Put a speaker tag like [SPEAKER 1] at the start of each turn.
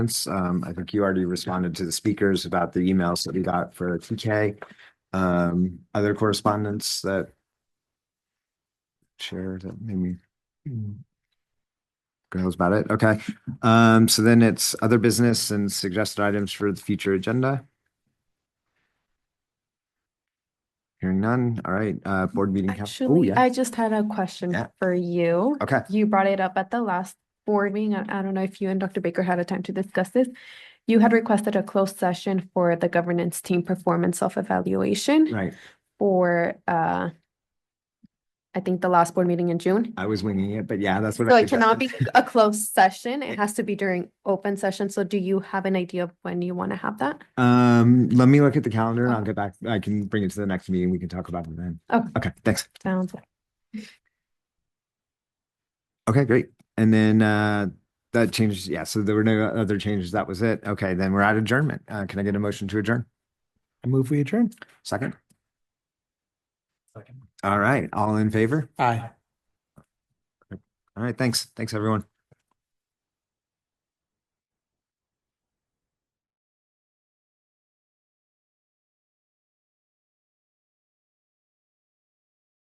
[SPEAKER 1] comments. Um, I think you already responded to the speakers about the emails that we got for TK. Um, other correspondence that share that maybe goes about it. Okay. Um, so then it's other business and suggested items for the future agenda. Hearing none. All right, uh, board meeting. cal- Oh,
[SPEAKER 2] Actually,
[SPEAKER 1] yeah.
[SPEAKER 2] I just had a question
[SPEAKER 1] Yeah.
[SPEAKER 2] for you.
[SPEAKER 1] Okay.
[SPEAKER 2] You brought it up at the last board meeting. and I don't know if you and Dr. Baker had a time to discuss this. You had requested a closed session for the governance team performance self-evaluation
[SPEAKER 1] Right.
[SPEAKER 2] for, uh, I think the last board meeting in June.
[SPEAKER 1] I was winging it, but yeah, that's what.
[SPEAKER 2] So it
[SPEAKER 1] suggested.
[SPEAKER 2] cannot be a closed session. It has to be during open session. So do you have an idea of when you want to have that?
[SPEAKER 1] Um, let me look at the calendar and I'll get back. I can bring it to the next meeting. We can talk about it then.
[SPEAKER 2] Okay.
[SPEAKER 1] Okay, thanks.
[SPEAKER 2] Sounds.
[SPEAKER 1] Okay, great. And then, uh, that changes. Yeah, so there were no other changes. That was it. Okay, then we're at adjournment. Uh, can I get a motion to adjourn?
[SPEAKER 3] I move we adjourn.
[SPEAKER 1] Second? All right, all in favor?
[SPEAKER 3] Aye.
[SPEAKER 1] All right, thanks. Thanks, everyone.